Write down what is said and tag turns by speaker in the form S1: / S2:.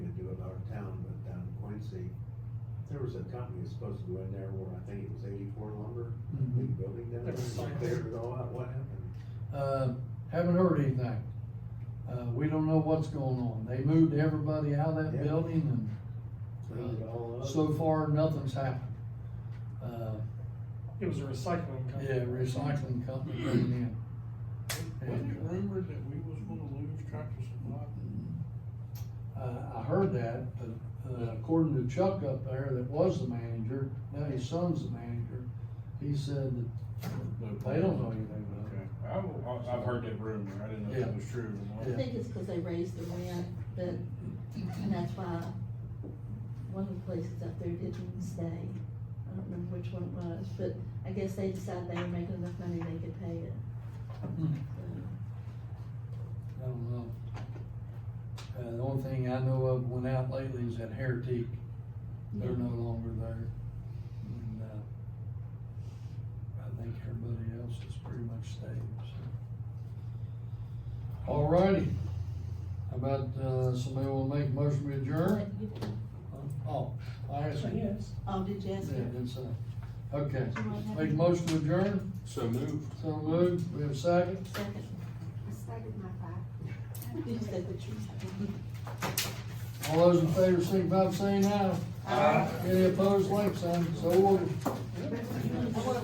S1: There was a company that's supposed to go in there where I think it was eighty-four lumber,
S2: Mhm.
S1: big building down there,
S3: That's
S1: and
S3: like-
S1: they cleared it all out, what happened?
S2: Uh, haven't heard anything. Uh, we don't know what's going on. They moved everybody out of that
S1: Yeah.
S2: building
S1: Cleaned it all
S2: and uh,
S1: up?
S2: so far, nothing's happened. Uh,
S3: It was a recycling company.
S2: yeah, recycling company coming in.
S4: Wasn't it
S2: And, uh,
S4: rumored that we was gonna lose Tractor Supply?
S2: Uh, I heard that, but uh, according to Chuck up there, that was the manager, now his son's the manager, he said that they don't know anything about it.
S4: Okay, I, I- I've heard that rumor, I didn't know if
S2: Yeah.
S4: it was true or
S2: Yeah.
S4: not.
S5: I think it's because they raised the rent, that, and that's why one of the places up there didn't stay. I don't remember which one it was, but I guess they decided they were making enough money they could pay it. So,
S2: I don't know. Uh, the only thing I know of went out lately is that Heritage, they're no longer there. And, uh, I think everybody else has pretty much stayed, so. All righty. How about, uh, somebody wanna make a motion to adjourn? Oh, I asked you.
S3: Yes.
S5: Oh, did you ask
S2: Yeah,
S5: her?
S2: that's, uh, okay, make a motion to adjourn,
S4: So move.
S2: so moved, we have a second,
S5: Second,
S6: I staggered my back.
S5: you said the truth.
S2: all those in favor, signify by saying aye.
S5: Aye.
S2: Any opposed, like sign, so ordered.